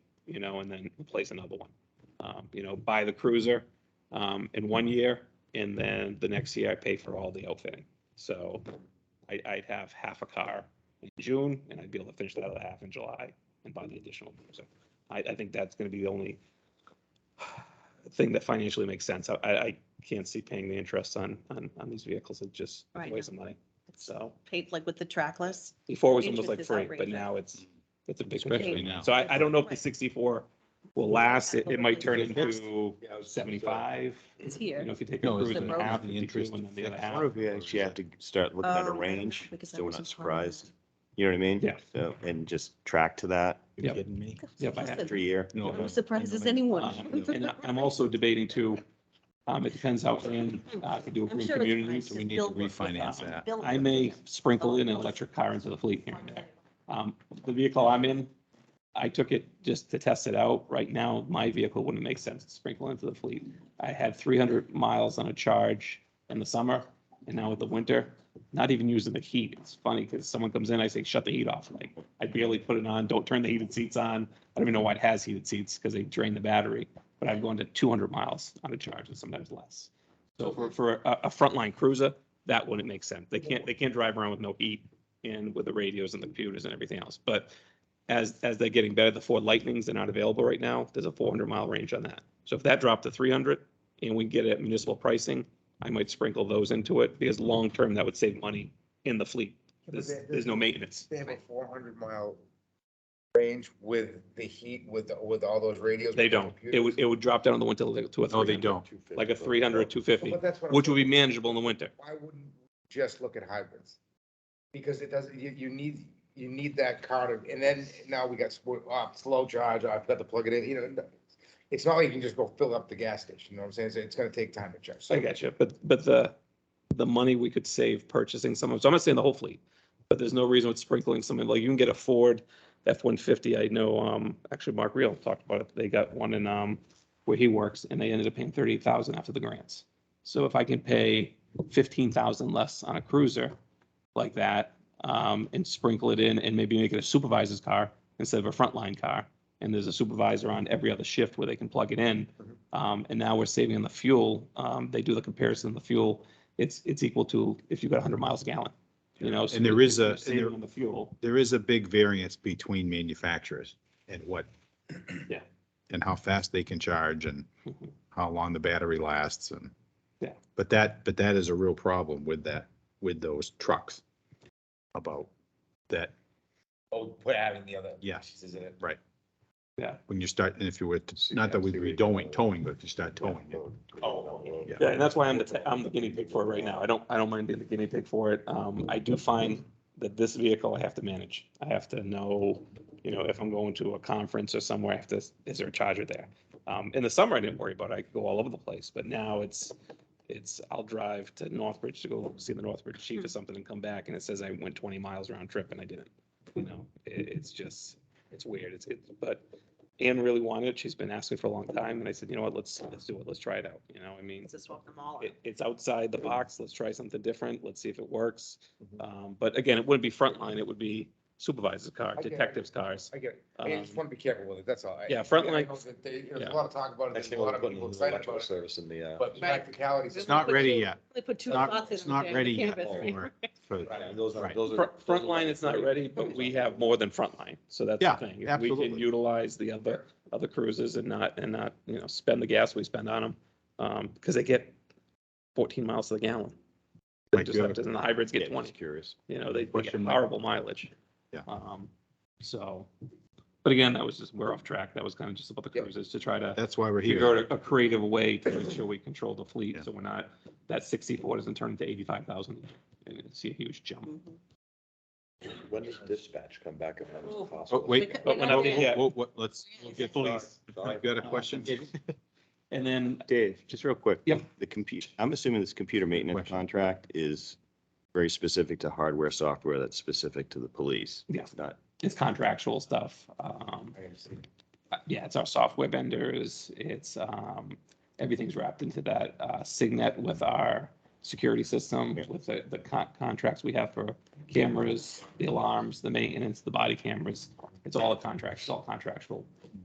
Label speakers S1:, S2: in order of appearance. S1: you know, and then replace another one. Um, you know, buy the cruiser, um, in one year and then the next year I pay for all the outfitting. So I, I'd have half a car in June and I'd be able to finish that other half in July and buy the additional cruiser. I, I think that's gonna be the only thing that financially makes sense. I, I I can't see paying the interest on, on, on these vehicles. It just it's a
S2: Right.
S1: waste of money. So
S2: Paid like with the track list.
S1: before it was almost
S2: Interest
S1: like
S2: is
S1: free, but
S2: outrageous.
S1: now it's, it's a big.
S3: Mm-hmm. Especially
S1: concern.
S3: now.
S1: So I, I don't know if the
S2: Right.
S1: sixty-four will last. It, it might turn
S3: It looks-
S1: into seventy-five.
S2: It's
S1: You
S2: here.
S1: know, if you take a
S3: No, it's
S1: cruise
S2: the
S1: and
S2: road.
S1: half,
S3: the
S1: the interest
S3: interest
S1: and then the other
S3: affects
S4: I
S1: half.
S4: wonder if you actually have to start looking at a
S2: Oh,
S4: range,
S2: because that
S4: so we're
S2: wasn't
S4: not
S2: part of
S4: surprised. You know what I mean?
S1: Yeah.
S4: So, and just track to that
S3: You're
S1: Yep.
S3: kidding me?
S2: that.
S1: Yeah, by half
S2: Listen,
S4: every year.
S3: No,
S2: No
S3: I-
S2: surprises
S3: I know.
S1: Um,
S2: anyone.
S1: And I- I'm also debating too, um, it depends how, in, uh, if you do a
S2: I'm
S1: green
S2: sure it's
S1: community.
S2: priced
S3: so we need to
S2: built with,
S3: refinance
S2: um,
S3: that.
S2: built
S1: I
S2: with
S1: may
S2: it.
S1: sprinkle in an electric car into the fleet here and there. Um, the vehicle I'm in, I took it just to test it out. Right now, my vehicle wouldn't make sense to sprinkle into the fleet. I had three hundred miles on a charge in the summer and now with the winter, not even using the heat. It's funny because someone comes in, I say, shut the heat off. Like, I barely put it on. Don't turn the heated seats on. I don't even know why it has heated seats because they drain the battery. But I've gone to two hundred miles on a charge and sometimes less. So for, for a, a frontline cruiser, that wouldn't make sense. They can't, they can't drive around with no heat and with the radios and the computers and everything else. But as, as they're getting better, the Ford Lightnings are not available right now. There's a four hundred mile range on that. So if that dropped to three hundred and we get it at municipal pricing, I might sprinkle those into it because long-term that would save money in the fleet. There's, there's no maintenance.
S5: They have a four hundred mile range with the heat, with, with all those radios.
S1: They
S5: with the
S1: don't. It would, it would drop down in the winter to a
S3: No, they
S1: 300,
S3: don't.
S1: Like a 300,
S5: computers.
S1: 250,
S5: But that's what I'm
S1: which would be
S5: saying.
S1: manageable in the winter.
S5: Why wouldn't we just look at hybrids? Because it doesn't, you, you need, you need that car to, and then now we got sport, oh, slow charge, I've got to plug it in, you know. It's not like you can just go fill up the gas station, you know what I'm saying? It's- It's gonna take time to charge. So
S1: I got you, but, but the, the money we could save purchasing some of, so I'm not saying the whole fleet, but there's no reason with sprinkling something, like you can get a Ford F-150, I know, um, actually Mark Real talked about it, they got one in, um, where he works, and they ended up paying thirty-eight thousand after the grants. So if I can pay fifteen thousand less on a cruiser like that, um, and sprinkle it in and maybe make it a supervisor's car instead of a frontline car, and there's a supervisor on every other shift where they can plug it in,
S3: Mm-hmm.
S1: um, and now we're saving on the fuel. Um, they do the comparison of the fuel. It's, it's equal to if you got hundred miles a gallon, you know? so
S3: And there is a-
S1: you're
S3: and
S1: saving
S3: there-
S1: on the fuel.
S3: There is a big variance between manufacturers and what.
S1: Yeah.
S3: And how fast they can charge and
S1: Mhm.
S3: how long the battery lasts and.
S1: Yeah.
S3: But that, but that is a real problem with that, with those trucks. About that,
S5: Oh, put adding the other
S3: yes,
S5: pieces in it.
S3: when you start, and if you were, to not that we'd be doing, towing, but if you start towing it.
S5: Oh.
S3: Yeah.
S1: Yeah, and that's why I'm the, te- I'm the guinea pig for it right now. I don't, I don't mind being the guinea pig for it. Um, I do find that this vehicle I have to manage. I have to know, you know, if I'm going to a conference or somewhere, I have to, is there a charger there? Um, in the summer, I didn't worry about it. I could go all over the place, but now it's, it's, I'll drive to Northbridge to go see the Northbridge chief or something and come back and it says I went twenty miles round trip and I didn't. You know, it, it's just, it's weird. It's, it's, but Anne really wanted it. She's been asking for a long time. And I said, you know what, let's, let's do it. Let's try it out. You know, I mean,
S2: Just swap them all. out.
S1: it, it's outside the box, let's try something different, let's see if it works.
S5: Mm-hmm.
S1: Um, but again, it wouldn't be frontline, it would be supervisor's car,
S5: I get it.
S1: detective's cars.
S5: I get it. I just want to be careful with it, that's all. I-
S1: Um, Yeah,
S5: I
S1: frontline-
S5: know that they- There's
S1: yeah.
S5: a lot of talk about it, there's a lot of people excited about it,
S4: Service in
S1: uh,
S4: the,
S5: but practicalities.
S2: It's
S3: It's not ready yet.
S2: They put two
S3: It's not,
S2: spots in
S3: it's not
S2: there,
S3: ready yet
S2: cannabis, right?
S3: for, for,
S4: uh, those
S3: are- Right.
S4: those
S1: Fr- Frontline is not ready, but we have more than frontline, so that's
S3: Yeah,
S1: the thing. If We can
S3: absolutely.
S1: utilize the other, other cruises and not, and not, you know, spend the gas we spend on them. Um, because they get fourteen miles to the gallon.
S3: Mike,
S1: Just
S3: you
S1: like,
S3: have a-
S1: doesn't the hybrids get
S4: Yeah,
S1: twenty?
S4: just curious.
S1: You know, they, they get
S3: Question, Mike?
S1: horrible mileage.
S3: Yeah.
S1: Um, so, but again, that was just, we're off track. That was kind of just about the
S5: Yep.
S1: cruises to try to
S3: that's why we're
S1: figure
S3: here.
S1: out a- a creative way to make sure we control the
S3: Yeah.
S1: fleet, so we're not, that sixty-four doesn't turn into eighty-five thousand. And it's a huge jump.
S2: Mhm.
S4: When does dispatch come back if that
S2: Oh.
S4: was
S3: Oh,
S4: possible?
S3: wait.
S2: But
S1: when I
S3: Whoa,
S1: think- yeah.
S3: whoa, whoa, let's, we'll get,
S4: Sorry,
S3: please,
S4: sorry.
S3: you got a question?
S1: And then,
S4: Dave, just real quick.
S1: Yep.
S4: The compute, I'm assuming this computer maintenance
S3: Question.
S4: contract is very specific to hardware, software that's specific to the police.
S1: Yeah.
S4: It's Not,
S1: it's contractual stuff, um,
S5: I understand.
S1: uh, yeah, it's our software vendors, it's, um, everything's wrapped into that, uh, Signet with our security system,
S4: Yeah.
S1: with the, the con- contracts we have for cameras, the alarms, the maintenance, the body cameras. It's all a contract, it's all contractual.